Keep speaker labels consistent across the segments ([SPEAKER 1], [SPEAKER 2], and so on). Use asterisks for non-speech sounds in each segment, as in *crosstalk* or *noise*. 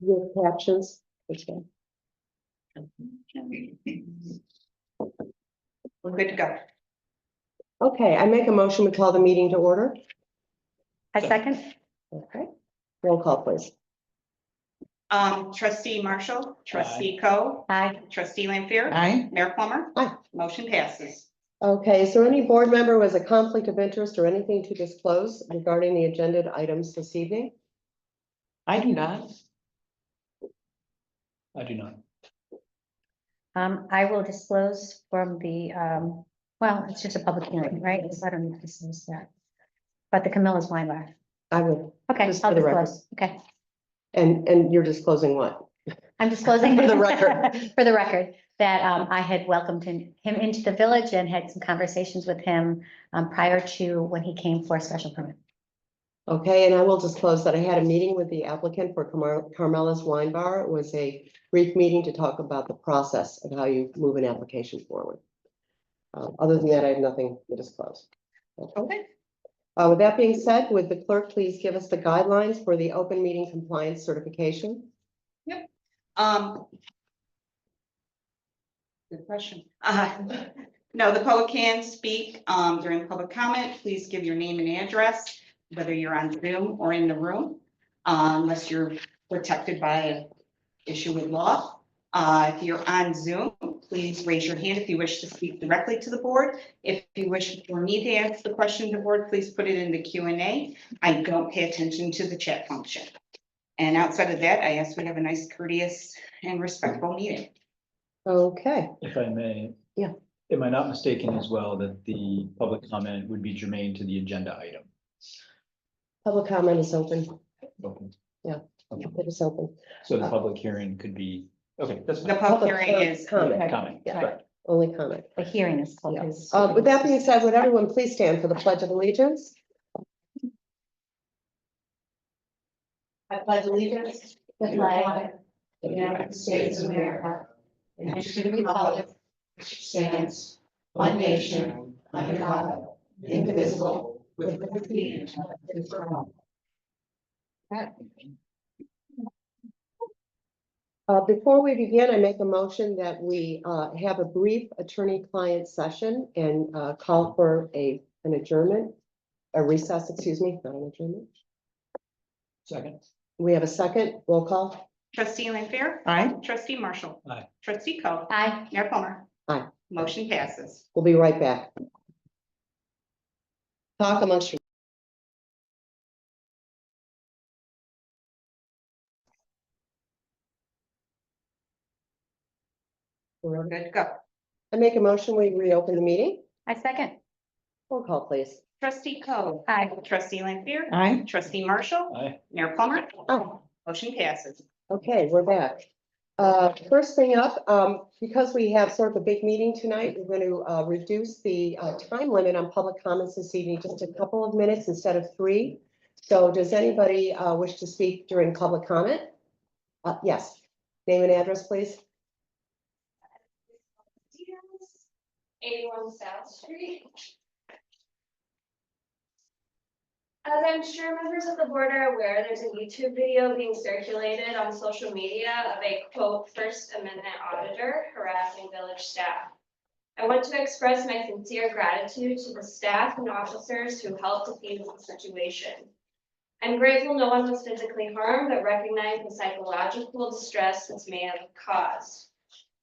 [SPEAKER 1] with captions. Okay.
[SPEAKER 2] We're good to go.
[SPEAKER 1] Okay, I make a motion, we call the meeting to order.
[SPEAKER 3] I second,
[SPEAKER 1] Okay, roll call please.
[SPEAKER 2] Um, trustee Marshall, trustee Co,
[SPEAKER 3] aye,
[SPEAKER 2] trustee Lampier.
[SPEAKER 4] Aye.
[SPEAKER 2] Mayor Plummer.
[SPEAKER 1] Aye.
[SPEAKER 2] Motion passes.
[SPEAKER 1] Okay, is there any board member who has a conflict of interest or anything to disclose regarding the agenda items this evening?
[SPEAKER 4] I do not. I do not.
[SPEAKER 3] um, I will disclose from the, um, well, it's just a public hearing, right, so I don't need to disclose that. But the Camilla's wine bar,
[SPEAKER 1] I would,
[SPEAKER 3] okay,
[SPEAKER 1] Just for
[SPEAKER 3] I'll
[SPEAKER 1] the record.
[SPEAKER 3] disclose, okay,
[SPEAKER 1] and, and you're disclosing what?
[SPEAKER 3] I'm
[SPEAKER 1] *laughs*
[SPEAKER 3] disclosing.
[SPEAKER 1] For the record.
[SPEAKER 3] *laughs* For the record, that, um, I had welcomed him, him into the village and had some conversations with him, um, prior to when he came for a special permit.
[SPEAKER 1] Okay, and I will disclose that I had a meeting with the applicant for Carmel- Carmela's Wine Bar. It was a brief meeting to talk about the process of how you move an application forward. Uh, Other than that, I have nothing to disclose.
[SPEAKER 2] Okay.
[SPEAKER 1] Uh, With that being said, would the clerk please give us the guidelines for the open meeting compliance certification?
[SPEAKER 2] Um. Good question. Uh, no, the public can speak, um, during public comment. Please give your name and address, whether you're on Zoom or in the room. uh, unless you're protected by an issue with law. Uh, if you're on Zoom, please raise your hand if you wish to speak directly to the board. If you wish for me to ask the question to the board, please put it in the Q and A. I don't pay attention to the chat function. And outside of that, I ask we have a nice courteous and respectful meeting.
[SPEAKER 1] Okay,
[SPEAKER 5] If I may.
[SPEAKER 1] Yeah.
[SPEAKER 5] Am I not mistaken as well that the public comment would be germane to the agenda item?
[SPEAKER 1] public comment is open.
[SPEAKER 5] Okay,
[SPEAKER 1] It is open.
[SPEAKER 5] So the public hearing could be, okay, that's
[SPEAKER 2] The
[SPEAKER 5] fine.
[SPEAKER 2] public hearing is,
[SPEAKER 1] Comment,
[SPEAKER 5] comment.
[SPEAKER 1] yeah.
[SPEAKER 5] correct.
[SPEAKER 1] only comment.
[SPEAKER 3] The hearing is
[SPEAKER 1] Yeah.
[SPEAKER 3] closed.
[SPEAKER 1] Uh, With that being said, would everyone please stand for the Pledge of Allegiance?
[SPEAKER 6] I pledge allegiance to the flag of the United States of America and to the republic which stands one nation under God, indivisible, with liberty and justice for all.
[SPEAKER 1] Uh, before we begin, I make a motion that we, uh, have a brief attorney-client session and, uh, call for a, an adjournment. A recess, excuse me, not an adjournment.
[SPEAKER 5] Second,
[SPEAKER 1] We have a second roll call.
[SPEAKER 2] trustee Lampier,
[SPEAKER 4] Aye.
[SPEAKER 2] trustee Marshall.
[SPEAKER 5] Aye.
[SPEAKER 2] Trustee Co,
[SPEAKER 3] Aye.
[SPEAKER 2] Mayor Plummer.
[SPEAKER 1] Aye.
[SPEAKER 2] Motion passes.
[SPEAKER 1] We'll be right back. Talk amongst yourselves.
[SPEAKER 2] We're good to go.
[SPEAKER 1] I make a motion, we reopen the meeting.
[SPEAKER 3] I second,
[SPEAKER 1] Roll call, please.
[SPEAKER 2] Trustee Co,
[SPEAKER 3] aye,
[SPEAKER 2] trustee Lampier,
[SPEAKER 4] Aye.
[SPEAKER 2] trustee Marshall,
[SPEAKER 5] aye,
[SPEAKER 2] Mayor Plummer.
[SPEAKER 1] Oh.
[SPEAKER 2] Motion passes.
[SPEAKER 1] Okay, we're back. Uh, First thing up, um, because we have sort of a big meeting tonight, we're going to uh, reduce the uh, time limit on public comments this evening, just a couple of minutes instead of three. So does anybody uh, wish to speak during public comment? Uh, Yes, name and address, please.
[SPEAKER 7] eighty-one South Street. As I'm sure members of the board are aware, there's a YouTube video being circulated on social media of a quote, First Amendment auditor harassing village staff. I want to express my sincere gratitude to the staff and officers who helped defeat the situation. I'm grateful no one was physically harmed, but recognize the psychological distress this may have caused.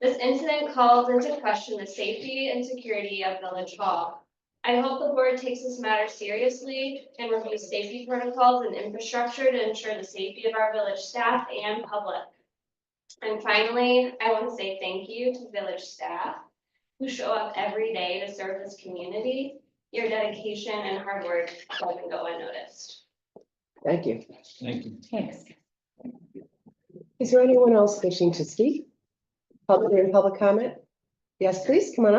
[SPEAKER 7] This incident calls into question the safety and security of Village Hall. I hope the board takes this matter seriously and reviews safety protocols and infrastructure to ensure the safety of our village staff and public. And finally, I want to say thank you to village staff who show up every day to serve this community. Your dedication and hard work doesn't go unnoticed.
[SPEAKER 1] Thank you.
[SPEAKER 5] thank you.
[SPEAKER 3] thanks.
[SPEAKER 1] Is there anyone else wishing to speak? Public, during public comment? Yes, please, come on up.